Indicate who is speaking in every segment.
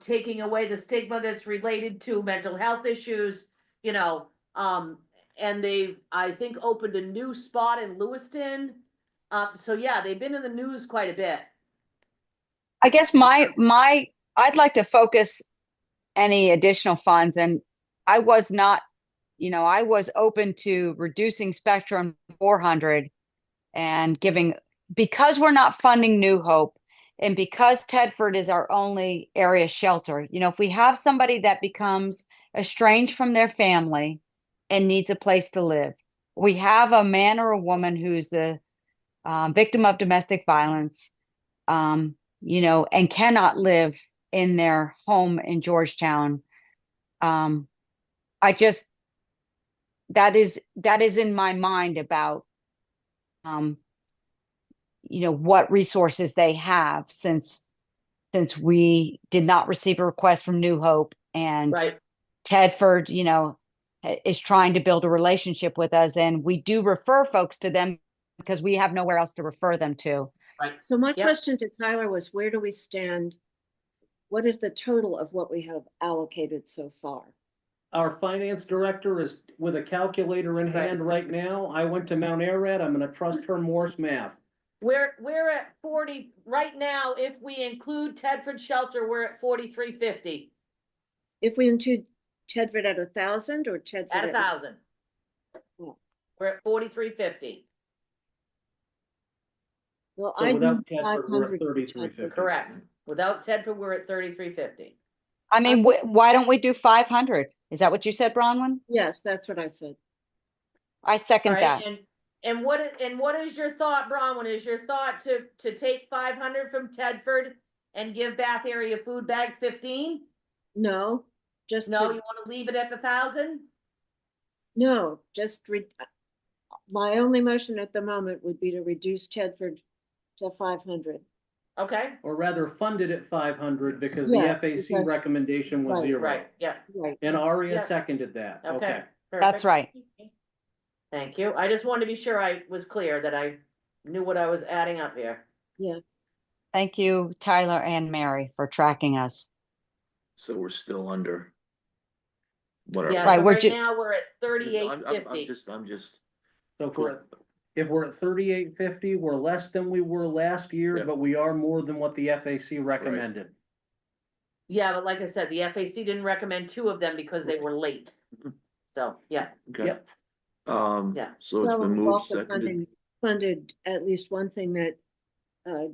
Speaker 1: taking away the stigma that's related to mental health issues, you know, um, and they've, I think, opened a new spot in Lewiston. Uh, so yeah, they've been in the news quite a bit.
Speaker 2: I guess my my I'd like to focus any additional funds and I was not, you know, I was open to reducing Spectrum 400 and giving because we're not funding New Hope and because Tedford is our only area shelter. You know, if we have somebody that becomes estranged from their family and needs a place to live, we have a man or a woman who's the um, victim of domestic violence. Um, you know, and cannot live in their home in Georgetown. Um, I just that is that is in my mind about um, you know what resources they have since since we did not receive a request from New Hope and
Speaker 1: Right.
Speaker 2: Tedford, you know, i- is trying to build a relationship with us, and we do refer folks to them because we have nowhere else to refer them to.
Speaker 3: So my
Speaker 1: Yep.
Speaker 3: question to Tyler was, where do we stand? What is the total of what we have allocated so far?
Speaker 4: Our finance director is with a calculator in
Speaker 1: Right.
Speaker 4: hand right now. I went to Mount Airad. I'm gonna trust her Morse math.
Speaker 1: We're, we're at forty, right now, if we include Tedford Shelter, we're at forty-three fifty
Speaker 3: If we include Tedford at a thousand or Tedford?
Speaker 1: at a thousand.
Speaker 3: Cool.
Speaker 1: We're at forty-three fifty,
Speaker 3: Well,
Speaker 4: So
Speaker 3: I
Speaker 4: without
Speaker 3: need five
Speaker 4: Tedford, we're at
Speaker 3: hundred.
Speaker 4: thirty-three fifty.
Speaker 1: correct. Without Tedford, we're at thirty-three fifty.
Speaker 2: I mean, wh- why don't we do 500? Is that what you said, Bronwyn?
Speaker 3: Yes, that's what I said.
Speaker 2: I second that.
Speaker 1: Alright, and, and what, i- and what is your thought, Bronwyn, is your thought to, to take five hundred from Tedford and give Bath Area Food Bank fifteen?
Speaker 3: No, just,
Speaker 1: No, you
Speaker 3: to-
Speaker 1: wanna leave it at the thousand?
Speaker 3: no, just re- my only motion at the moment would be to reduce Tedford to five hundred.
Speaker 1: Okay,
Speaker 4: Or rather funded at five hundred because the
Speaker 3: Yes,
Speaker 4: FAC
Speaker 3: because-
Speaker 4: recommendation was
Speaker 3: Right.
Speaker 4: zero.
Speaker 1: right, yeah,
Speaker 3: Right.
Speaker 4: And
Speaker 1: Yeah.
Speaker 4: Aria seconded that.
Speaker 1: okay.
Speaker 4: Okay.
Speaker 2: That's
Speaker 1: perfect.
Speaker 2: right.
Speaker 1: Thank you, I just wanted to be sure I was clear that I knew what I was adding up here.
Speaker 2: Thank you, Tyler and Mary, for tracking us.
Speaker 5: So we're still under. Whatever.
Speaker 1: Yeah,
Speaker 2: Right,
Speaker 1: so
Speaker 2: we're
Speaker 1: right
Speaker 2: ju-
Speaker 1: now, we're at
Speaker 5: I'm-
Speaker 1: thirty-eight
Speaker 5: I'm- I'm
Speaker 1: fifty,
Speaker 5: just, I'm just,
Speaker 4: So if we're, if we're at thirty-eight fifty, we're less than we were last year,
Speaker 5: Yeah.
Speaker 4: but we are more than what the FAC recommended.
Speaker 1: yeah, but like I said, the FAC didn't recommend two of them because they were late.
Speaker 5: Mhm.
Speaker 1: So, yeah,
Speaker 5: okay.
Speaker 4: Yep.
Speaker 5: Um,
Speaker 1: Yeah.
Speaker 5: so it's
Speaker 3: Well,
Speaker 5: been
Speaker 3: we've
Speaker 5: moved,
Speaker 3: also
Speaker 5: seconded,
Speaker 3: funding- Funded at least one thing that, uh,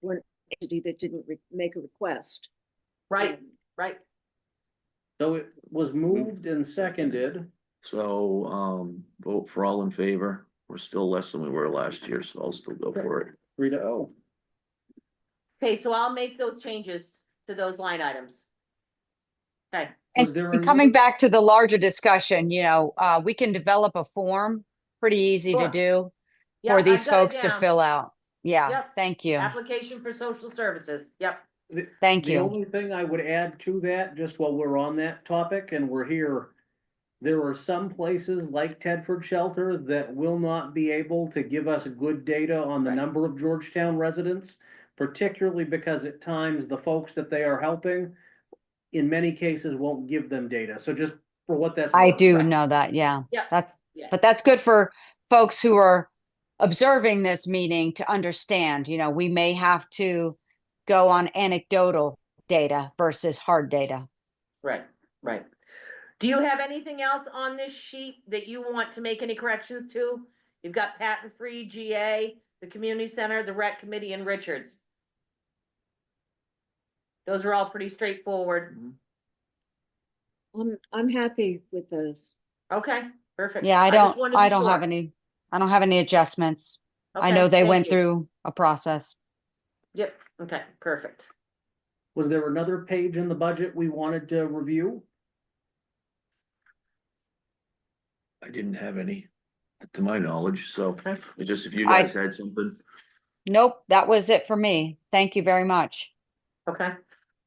Speaker 3: one entity that didn't re- make a request.
Speaker 1: right, right,
Speaker 4: So it was moved and seconded.
Speaker 5: so, um, vote for all in favor. We're still less than we were last year, so I'll still go for it.
Speaker 4: Three to oh.
Speaker 1: okay, so I'll make those changes to those line items. Okay,
Speaker 4: Was there
Speaker 2: And coming
Speaker 4: another-
Speaker 2: back to the larger discussion, you know, uh, we can develop a form, pretty easy to
Speaker 1: Sure.
Speaker 2: do
Speaker 1: yeah,
Speaker 2: for
Speaker 1: I've
Speaker 2: these
Speaker 1: got it
Speaker 2: folks to
Speaker 1: down.
Speaker 2: fill out. Yeah,
Speaker 1: Yep.
Speaker 2: thank you.
Speaker 1: Application for social services, yep,
Speaker 2: Thank
Speaker 4: The
Speaker 2: you.
Speaker 4: only thing I would add to that, just while we're on that topic and we're here, there are some places like Tedford Shelter that will not be able to give us good data on the
Speaker 1: Right.
Speaker 4: number of Georgetown residents, particularly because at times the folks that they are helping, in many cases, won't give them data. So just for what that's.
Speaker 2: I
Speaker 4: worth.
Speaker 2: do
Speaker 1: Right.
Speaker 2: know that, yeah.
Speaker 1: Yeah.
Speaker 2: That's,
Speaker 1: Yeah.
Speaker 2: but that's good for folks who are observing this meeting to understand, you know, we may have to go on anecdotal data versus hard data.
Speaker 1: right, right. Do you have anything else on this sheet that you want to make any corrections to? You've got patent-free, GA, the community center, the rec committee, and Richards. Those are all pretty straightforward,
Speaker 3: I'm, I'm happy with those.
Speaker 1: okay, perfect.
Speaker 2: Yeah, I
Speaker 1: just
Speaker 2: don't,
Speaker 1: wanted to
Speaker 2: I
Speaker 1: be
Speaker 2: don't have
Speaker 1: sure.
Speaker 2: any, I don't have any adjustments. I
Speaker 1: Okay,
Speaker 2: know they
Speaker 1: thank
Speaker 2: went
Speaker 1: you.
Speaker 2: through a process.
Speaker 1: Yep, okay, perfect.
Speaker 4: Was there another page in the budget we wanted to review?
Speaker 5: I didn't have any, to my knowledge, so
Speaker 1: Okay.
Speaker 5: it's just if you
Speaker 2: I-
Speaker 5: guys had something.
Speaker 2: Nope, that was it for me. Thank you very much.
Speaker 1: Okay.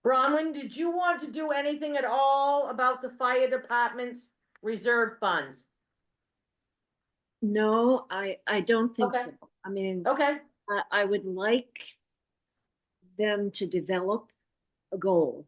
Speaker 1: Bronwyn, did you want to do anything at all about the fire department's reserve funds?
Speaker 3: No, I, I don't think
Speaker 1: Okay.
Speaker 3: so. I mean,
Speaker 1: Okay,
Speaker 3: I, I would like them to develop a goal.